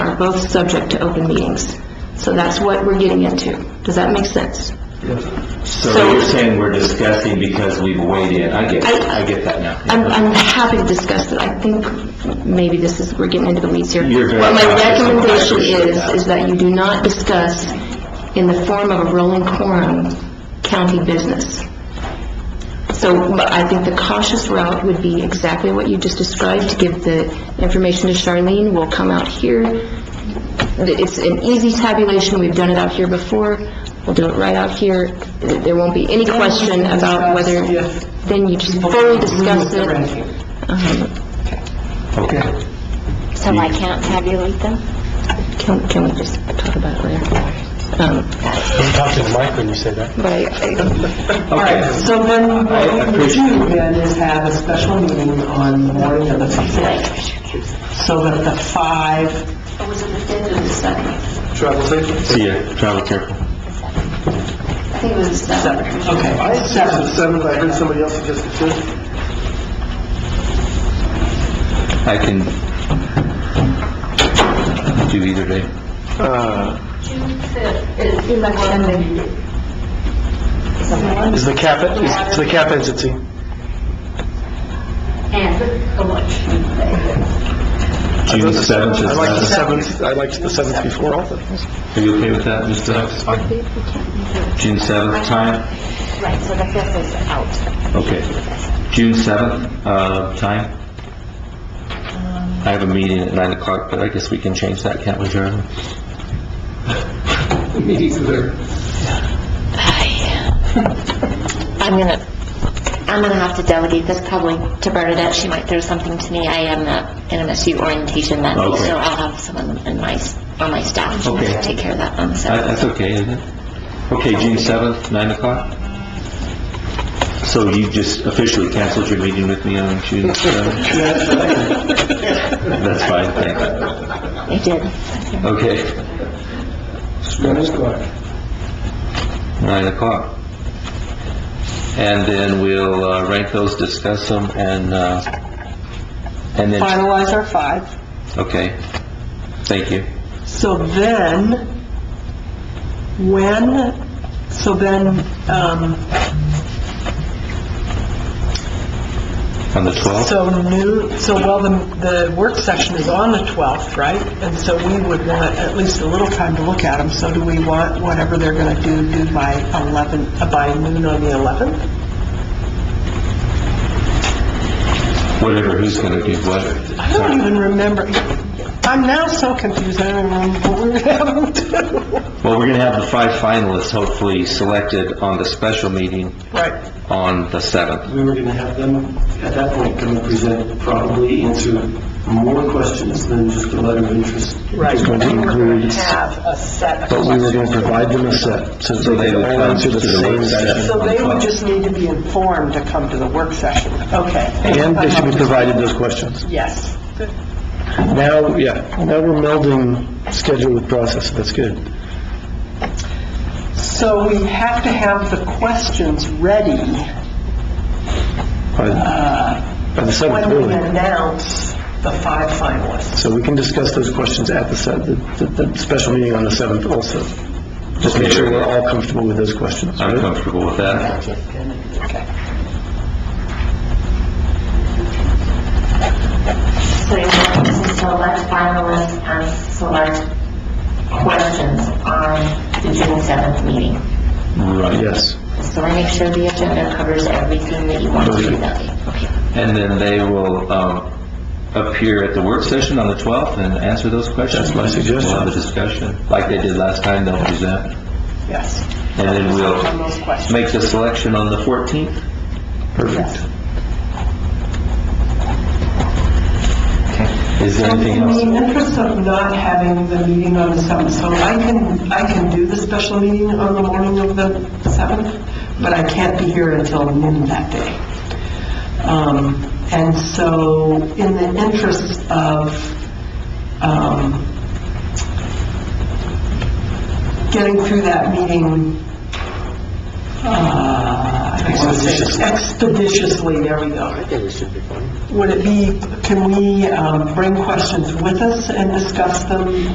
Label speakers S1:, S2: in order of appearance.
S1: both subject to open meetings. So that's what we're getting into. Does that make sense?
S2: So you're saying we're discussing because we've weighed in, I get,
S1: I-
S2: I get that now.
S1: I'm, I'm happy to discuss it. I think maybe this is, we're getting into the weeds here.
S2: You're very
S1: What my
S2: right.
S1: recommendation
S2: I appreciate
S1: is,
S2: that.
S1: is that you do not discuss in the form of a rolling quorum county business. So, but I think the cautious route would be exactly what you just described, to give the information to Charlene, we'll come out here. It's an easy tabulation, we've done it out here before, we'll do it right out here. There won't be any question about whether, then you just fully discuss it. Um,
S2: Okay.
S3: Uh-huh. So I can't tabulate them?
S1: Can, can we just talk about it later? Um,
S4: Don't talk to the mic when you say that.
S1: but I,
S5: All right, so then what we would do then is have a special meeting on the morning of the 5th, so that the five
S1: was it the fifth or the seventh?
S4: Travel safely.
S2: See ya, travel careful.
S1: I think it was the seventh.
S5: Okay,
S4: the seventh, I heard somebody else suggest the fifth.
S2: I can do either day.
S4: Uh, Is the cap, is the cap entity?
S2: June seventh
S4: I
S2: is
S4: like the
S2: that,
S4: seventh, I liked the seventh before all of this.
S2: are you okay with that, Mr. Hubbs? June seventh time,
S3: Right, so the fifth is out.
S2: okay. June seventh, uh, time?
S3: Um,
S2: I have a meeting at nine o'clock, but I guess we can change that, can't we, Jeremy?
S3: I'm gonna, I'm gonna have to delegate this probably to Bernadette, she might throw something to me. I am at an MSU orientation that week,
S2: Okay.
S3: so I'll have someone in my, on my staff
S2: Okay.
S3: take care of that one, so.
S2: That- Uh, That's okay, isn't it? Okay, June 7th, 9 o'clock? So you just officially canceled your meeting with me on June 7th? That's fine, thanks.
S3: I did.
S2: Okay,
S4: Spanish clock.
S2: 9 o'clock. And then we'll uh, rank those, discuss them, and, uh, and then,
S5: finalize our five,
S2: okay. Thank you.
S5: so then, when, so then, um,
S2: On the 12th?
S5: so new, so well, the, the work session is on the 12th, right? And so we would want at least a little time to look at them, so do we want whatever they're going to do, do by 11, uh, by noon on the 11th?
S2: Whatever, who's gonna do what?
S5: I don't even remember. I'm now so confused, I don't remember what we were having to...
S2: Well, we're gonna have the five finalists hopefully selected on the special meeting
S5: Right,
S2: on the 7th.
S6: we were going to have them, at that point, come and present, probably answer more questions than just a letter of interest.
S5: right.
S4: Just going to
S5: We were
S4: include-
S5: gonna Have a set of
S4: But we were
S5: questions.
S4: going to provide them a set, so
S2: So
S4: they
S2: they
S4: could
S2: would
S4: all
S2: come
S4: answer the
S2: to the
S4: same
S2: work session.
S4: set.
S5: So they would just need to be informed to come to the work session, okay?
S4: And they should be provided those questions.
S5: Yes.
S4: Now, yeah, now we're melding schedule with process, that's good.
S5: So we have to have the questions ready
S4: By by the seventh,
S5: when we
S4: really.
S5: announce the five finalists.
S4: So we can discuss those questions at the se- the, the the special meeting on the seventh also. Just make sure we're all comfortable with those questions.
S2: I'm
S4: right?
S2: comfortable with that.
S7: So you want to select finalists and select questions on the June 7th meeting.
S2: Right.
S4: Yes.
S3: So I make sure the agenda covers everything that you want to do that day.
S2: And then they will um, appear at the work session on the 12th and answer those questions.
S4: That's my suggestion.
S2: We'll have a discussion, like they did last time, they'll present.
S5: Yes.
S2: And then
S5: On
S2: we'll
S5: those questions.
S2: make the selection on the 14th.
S4: Perfect.
S2: Is there
S5: So
S2: anything
S5: In
S2: else?
S5: the interest of not having the meeting on the 7th, so I can, I can do the special meeting on the morning of the 7th, but I can't be here until noon that day. Um, And so in the interest of um, getting through that meeting uh, I don't wanna say expeditiously, there we go. Would it be, can we um, bring questions with us and discuss them